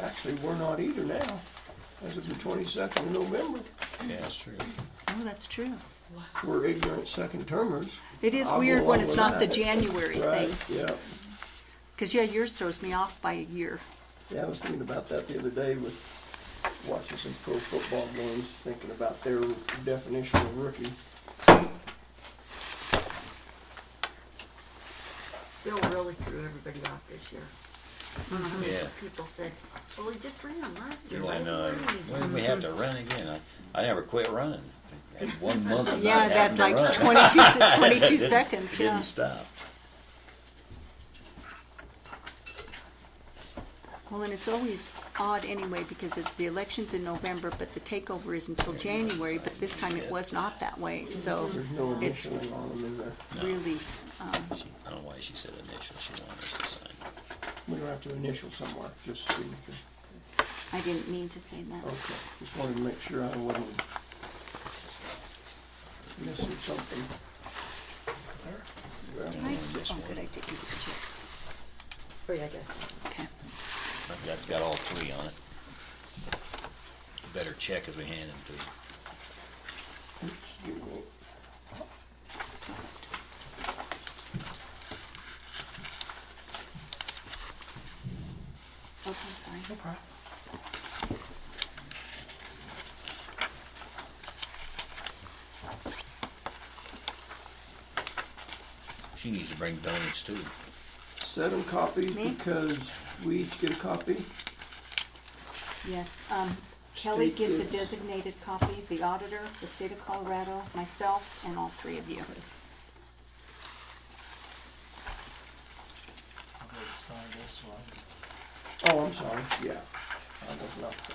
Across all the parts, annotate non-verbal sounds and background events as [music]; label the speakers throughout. Speaker 1: Actually, we're not either now, as of the twenty-second of November.
Speaker 2: Yeah, that's true.
Speaker 3: Oh, that's true.
Speaker 1: We're ignorant second termers.
Speaker 3: It is
Speaker 1: I'll go
Speaker 3: weird
Speaker 1: along
Speaker 3: when it's
Speaker 1: with
Speaker 3: not the
Speaker 1: that.
Speaker 3: January
Speaker 1: Right,
Speaker 3: thing,
Speaker 1: yeah.
Speaker 3: because yeah, yours throws me off by a year.
Speaker 1: Yeah, I was thinking about that the other day with watching some pro football games, thinking about their definition of rookie.
Speaker 4: Bill really threw everybody off this year. I don't know how many
Speaker 2: Yeah.
Speaker 4: people said, well, he just ran last
Speaker 2: Yeah,
Speaker 4: year. why
Speaker 2: I
Speaker 4: didn't
Speaker 3: uh,
Speaker 2: know.
Speaker 4: he run?"
Speaker 2: Well, we had to run again. I, I never quit running. I had one month
Speaker 3: [laughs]
Speaker 2: of
Speaker 3: Yeah,
Speaker 2: not having
Speaker 3: that's
Speaker 2: to run. [laughs]
Speaker 3: like
Speaker 1: [laughs]
Speaker 3: 22, se- 22
Speaker 2: Didn't-
Speaker 3: seconds, yeah.
Speaker 2: Didn't stop.
Speaker 3: Well, and it's always odd anyway, because it's, the election's in November, but the takeover is until January, but this time it was not that way, so
Speaker 1: There's no
Speaker 3: it's
Speaker 1: initialing on them in there.
Speaker 3: really, um,
Speaker 2: She, I don't know why she said initial. She wanted us to sign.
Speaker 1: We don't have to initial somewhere, just signature.
Speaker 3: I didn't mean to say that.
Speaker 1: Okay, just wanted to make sure I wasn't missing something.
Speaker 3: Did I, oh, did I take you the checks?
Speaker 4: Three, I guess.
Speaker 3: Okay.
Speaker 2: That's got all three on it. You Better check as we hand them to you.
Speaker 1: Excuse me.
Speaker 3: Okay, fine.
Speaker 2: She needs to bring donuts too.
Speaker 1: Seven copies
Speaker 3: Me?
Speaker 1: because we each get a copy.
Speaker 3: Yes, um, Kelly
Speaker 1: State
Speaker 3: gets a
Speaker 1: bids.
Speaker 3: designated copy, the auditor, the state of Colorado, myself, and all three of you.
Speaker 1: Oh, I'm sorry, yeah. I was not,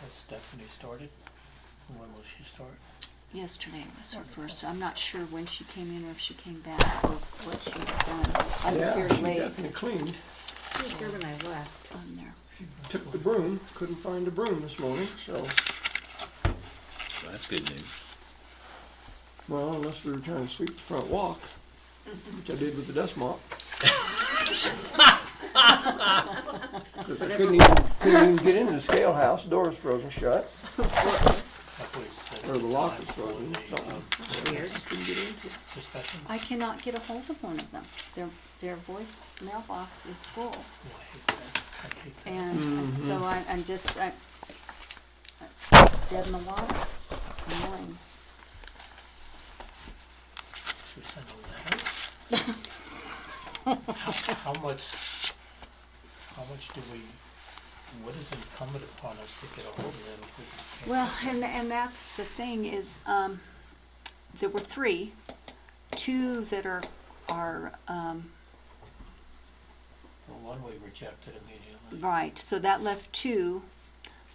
Speaker 5: Has Stephanie started? When will she start?
Speaker 3: Yesterday was her first, I'm not sure when she came in or if she came back or what she had done. I was here
Speaker 1: yeah, she
Speaker 3: late
Speaker 1: definitely cleaned.
Speaker 4: He was here when I left.
Speaker 3: on there.
Speaker 1: Took the broom, couldn't find the broom this morning, so,
Speaker 2: So that's good news.
Speaker 1: well, unless we were trying to sweep the front walk, which I did with the dust mop. Because I couldn't even, couldn't even get into the scale house, door was frozen shut,
Speaker 5: I thought you said
Speaker 1: or the lock was frozen,
Speaker 5: before the,
Speaker 1: something.
Speaker 4: Weird.
Speaker 1: Couldn't get into it.
Speaker 5: uh, Discussion?
Speaker 3: I cannot get a hold of one of them. Their, their voice mailbox is full.
Speaker 5: Oh, I hate that. I hate that.
Speaker 3: And
Speaker 1: Mm-hmm.
Speaker 3: and so I, I'm just, I, dead in the water, annoying.
Speaker 5: Should we send a letter? How how much, how much do we, what is incumbent upon us to get a hold of them if we can't?
Speaker 3: Well, and, and that's the thing is, um, there were three, two that are, are, um,
Speaker 5: Well, one we rejected immediately.
Speaker 3: right, so that left two.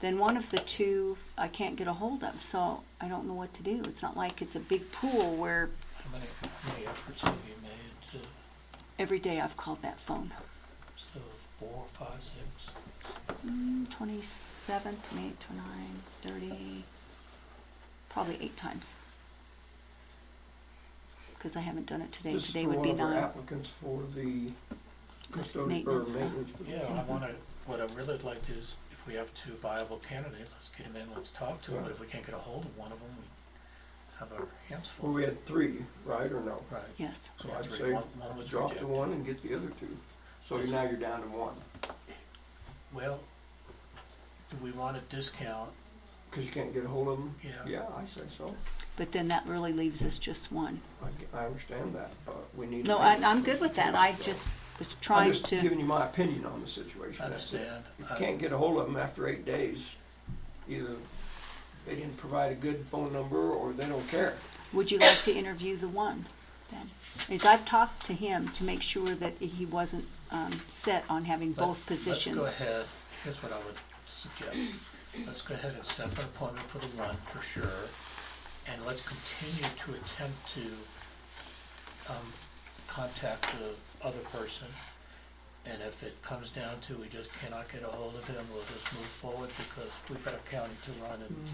Speaker 3: Then one of the two I can't get a hold of, so I don't know what to do. It's not like it's a big pool where
Speaker 5: How many, how many efforts have you made to,
Speaker 3: every day I've called that phone.
Speaker 5: so four, five, six?
Speaker 3: Mm, Twenty-seven, twenty-eight, twenty-nine, thirty, probably eight times. Because I haven't done it today.
Speaker 1: This is
Speaker 3: Today
Speaker 1: for
Speaker 3: would
Speaker 1: one
Speaker 3: be
Speaker 1: of our
Speaker 3: nine.
Speaker 1: applicants for the custodian, or
Speaker 3: maintenance, huh?
Speaker 1: maintenance.
Speaker 5: Yeah, I wanna, what I really would like to is, if we have two viable candidates, let's get them in, let's talk to them, but if we can't get a hold of one of them, we have our hands
Speaker 1: Well,
Speaker 5: full.
Speaker 1: we had three, right, or no?
Speaker 5: Right.
Speaker 3: Yes.
Speaker 5: We
Speaker 1: So
Speaker 5: had
Speaker 1: I'd
Speaker 5: three.
Speaker 1: say
Speaker 5: One- one was
Speaker 1: drop the
Speaker 5: rejected.
Speaker 1: one and get the other two. So you're- now you're down to one,
Speaker 5: Well, do we want a discount?
Speaker 1: because you can't get a hold of them?
Speaker 5: Yeah.
Speaker 1: Yeah, I say so.
Speaker 3: But then that really leaves us just one.
Speaker 1: I, g- I understand that, but we need.
Speaker 3: No,
Speaker 1: to-
Speaker 3: I, I'm good with that. I just was trying
Speaker 1: I'm just
Speaker 3: to,
Speaker 1: giving you my opinion on the situation.
Speaker 5: I
Speaker 1: that's it.
Speaker 5: understand.
Speaker 1: If
Speaker 5: I-
Speaker 1: you can't get a hold of them after eight days, either they didn't provide a good phone number or they don't care.
Speaker 3: would you like to interview the one then? Is I've talked to him to make sure that he wasn't, um, set on having
Speaker 5: let-
Speaker 3: both positions.
Speaker 5: Let's go ahead, here's what I would suggest. Let's go ahead and set up an appointment for the one for sure, and let's continue to attempt to um, contact the other person. And if it comes down to we just cannot get a hold of him, we'll just move forward because we've got a county to run and